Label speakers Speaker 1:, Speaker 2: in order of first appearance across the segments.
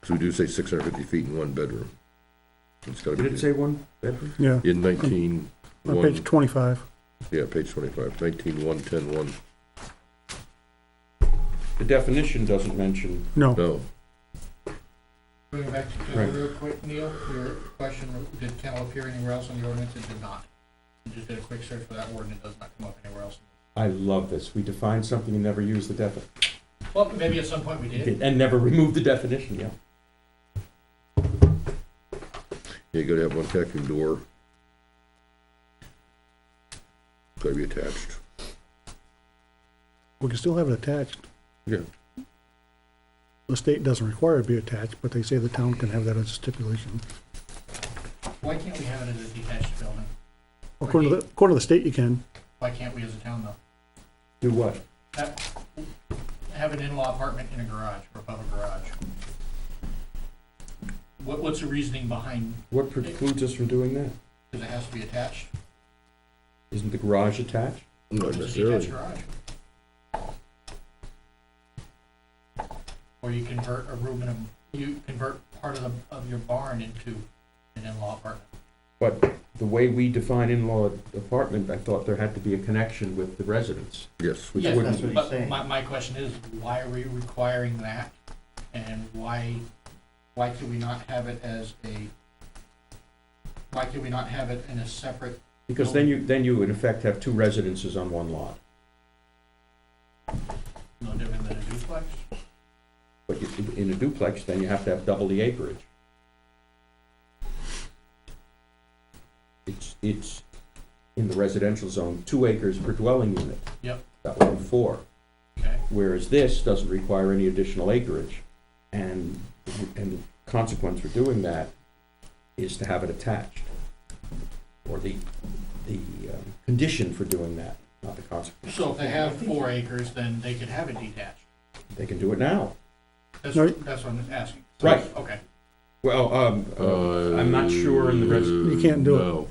Speaker 1: Because we do say six hundred fifty feet in one bedroom. It's gotta
Speaker 2: Did it
Speaker 1: be
Speaker 2: say one bedroom?
Speaker 3: Yeah,
Speaker 1: in nineteen,
Speaker 3: on page
Speaker 1: one,
Speaker 3: twenty-five.
Speaker 1: yeah, page twenty-five, nineteen, one, ten, one,
Speaker 2: The definition doesn't mention,
Speaker 3: No,
Speaker 1: no.
Speaker 4: Going back to,
Speaker 2: Right.
Speaker 4: just real quick, Neil, your question, did kennel appear anywhere else in the ordinance? It did not. I just did a quick search for that word and it does not come up anywhere else.
Speaker 2: I love this, we define something and never use the defi,
Speaker 4: Well, maybe at some point we did.
Speaker 2: and never remove the definition, yeah.
Speaker 1: Yeah, You gotta have one vacuum door. Gotta be attached.
Speaker 3: we can still have it attached.
Speaker 1: Yeah.
Speaker 3: The state doesn't require it to be attached, but they say the town can have that as a stipulation.
Speaker 4: Why can't we have it as a detached building?
Speaker 3: According to, the according to the state, you can.
Speaker 4: Why can't we as a town though?
Speaker 2: Do what?
Speaker 4: Have, have an in-law apartment in a garage or above a garage? What, what's the reasoning behind,
Speaker 2: What precludes us from doing that?
Speaker 4: because it has to be attached?
Speaker 2: Isn't the garage attached?
Speaker 1: Not
Speaker 4: It's a
Speaker 1: necessarily.
Speaker 4: detached garage. Or you convert a room in a, you convert part of the, of your barn into an in-law apartment.
Speaker 2: But the way we define in-law apartment, I thought there had to be a connection with the residence.
Speaker 1: Yes,
Speaker 2: Which
Speaker 4: Yes,
Speaker 2: wouldn't-
Speaker 5: that's what he's
Speaker 4: But
Speaker 5: saying.
Speaker 4: my, my question is, why are we requiring that? And why, why could we not have it as a, why could we not have it in a separate,
Speaker 2: Because then you, then you in effect have two residences on one lot.
Speaker 4: no different than a duplex?
Speaker 2: But you- in a duplex, then you have to have double the acreage. It's, it's, in the residential zone, two acres per dwelling unit.
Speaker 4: Yep.
Speaker 2: That would be four,
Speaker 4: Okay,
Speaker 2: whereas this doesn't require any additional acreage. And, and the consequence for doing that is to have it attached. Or the, the um, condition for doing that, not the consequence.
Speaker 4: so if they have four acres, then they could have it detached.
Speaker 2: They can do it now.
Speaker 4: That's,
Speaker 3: No.
Speaker 4: that's what I'm asking.
Speaker 2: Right.
Speaker 4: Okay.
Speaker 2: Well, um, uh, I'm not sure in the res-
Speaker 3: You can't do it.
Speaker 1: No.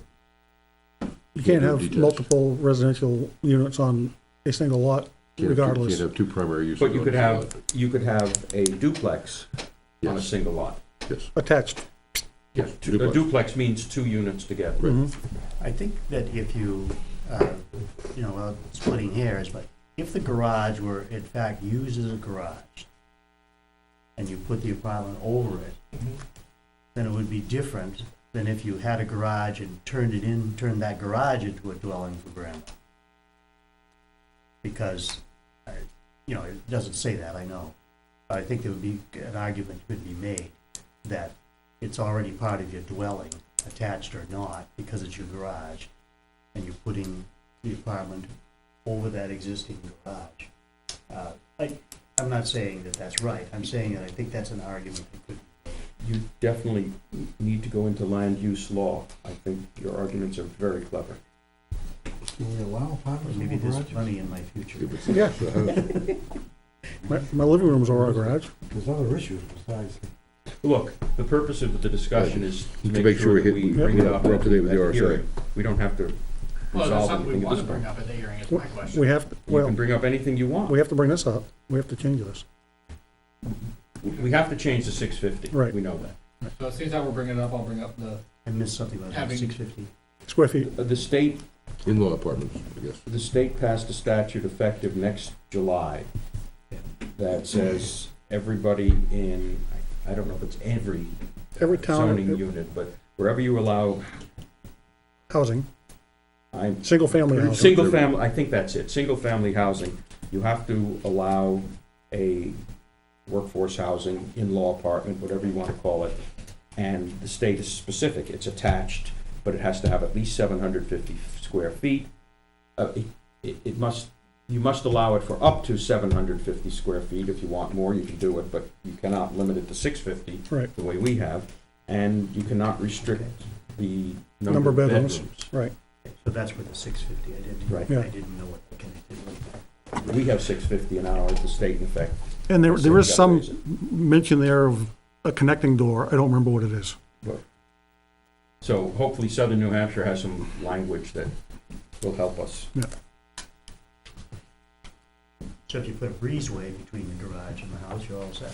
Speaker 3: You can't have
Speaker 1: Detached.
Speaker 3: multiple residential units on a single lot
Speaker 1: Can't have two-
Speaker 3: regardless.
Speaker 1: Can't have two primary uses.
Speaker 2: But you
Speaker 1: on
Speaker 2: could
Speaker 1: the same
Speaker 2: have, you could have a duplex on a
Speaker 1: Yes.
Speaker 2: single lot.
Speaker 1: lot. Yes,
Speaker 3: Attached,
Speaker 1: yes.
Speaker 2: A
Speaker 1: duplex.
Speaker 2: duplex means two units together.
Speaker 3: mhm,
Speaker 5: I think that if you, uh, you know, well, splitting hairs, but if the garage were in fact used as a garage and you put the apartment over it, then it would be different than if you had a garage and turned it in, turned that garage into a dwelling for grandma. Because, uh, you know, it doesn't say that, I know. But I think there would be, an argument could be made that it's already part of your dwelling, attached or not, because it's your garage, and you're putting the apartment over that existing garage. Uh, I, I'm not saying that that's right, I'm saying that I think that's an argument that could,
Speaker 2: You definitely need to go into land use law. I think your arguments are very clever.
Speaker 6: Can we allow apartments
Speaker 5: maybe
Speaker 6: in
Speaker 5: there's
Speaker 6: garages?
Speaker 5: money in my future.
Speaker 1: If it's-
Speaker 3: yeah.
Speaker 1: the house-
Speaker 3: My, my living room's over our garage.
Speaker 6: There's other issues besides,
Speaker 2: Look, the purpose of the discussion is to
Speaker 1: To
Speaker 2: make sure that
Speaker 1: hit-
Speaker 2: we bring it up
Speaker 1: we're
Speaker 2: at
Speaker 1: up to date with the
Speaker 2: the
Speaker 1: RSA.
Speaker 2: hearing. We don't have to
Speaker 4: Well, that's
Speaker 2: resolve
Speaker 4: something we
Speaker 2: anything at
Speaker 4: want to
Speaker 2: this
Speaker 4: bring
Speaker 2: point.
Speaker 4: up at the hearing, is my question.
Speaker 3: We have, to-
Speaker 2: You can
Speaker 3: well,
Speaker 2: bring up anything you want.
Speaker 3: we have to bring this up. We have to change this.
Speaker 2: We have to change the six fifty.
Speaker 3: Right.
Speaker 2: We know that.
Speaker 4: So it seems that we're bringing it up, I'll bring up the,
Speaker 5: I missed something about
Speaker 4: Having-
Speaker 5: six fifty.
Speaker 3: Square feet,
Speaker 2: Uh, The state
Speaker 1: In-law apartments, I guess.
Speaker 2: The state passed a statute effective next July that says everybody in, I don't know if it's every
Speaker 3: every town,
Speaker 2: zoning unit, but wherever you allow,
Speaker 3: housing,
Speaker 2: I'm,
Speaker 3: single-family housing.
Speaker 2: single family, I think that's it, single family housing, you have to allow a workforce housing, in-law apartment, whatever you want to call it. And the state is specific, it's attached, but it has to have at least seven hundred fifty square feet. Uh, it- it, it must, you must allow it for up to seven hundred fifty square feet. If you want more, you can do it, but you cannot limit it to six fifty.
Speaker 3: Right.
Speaker 2: The way we have, and you cannot restrict the number
Speaker 3: Number
Speaker 2: of
Speaker 3: of bedrooms.
Speaker 2: bedrooms.
Speaker 3: Right,
Speaker 5: So that's where the six fifty, I
Speaker 2: Right.
Speaker 5: didn't,
Speaker 3: Yeah.
Speaker 5: I didn't know what that connected with.
Speaker 2: We have six fifty an hour at the state in effect.
Speaker 3: and there,
Speaker 2: So
Speaker 3: there
Speaker 2: we
Speaker 3: is
Speaker 2: gotta
Speaker 3: some
Speaker 2: raise it.
Speaker 3: mention there of a connecting door. I don't remember what it is.
Speaker 2: So hopefully southern New Hampshire has some language that will help us.
Speaker 5: So if you put a breezeway between the garage and the house, you're all set.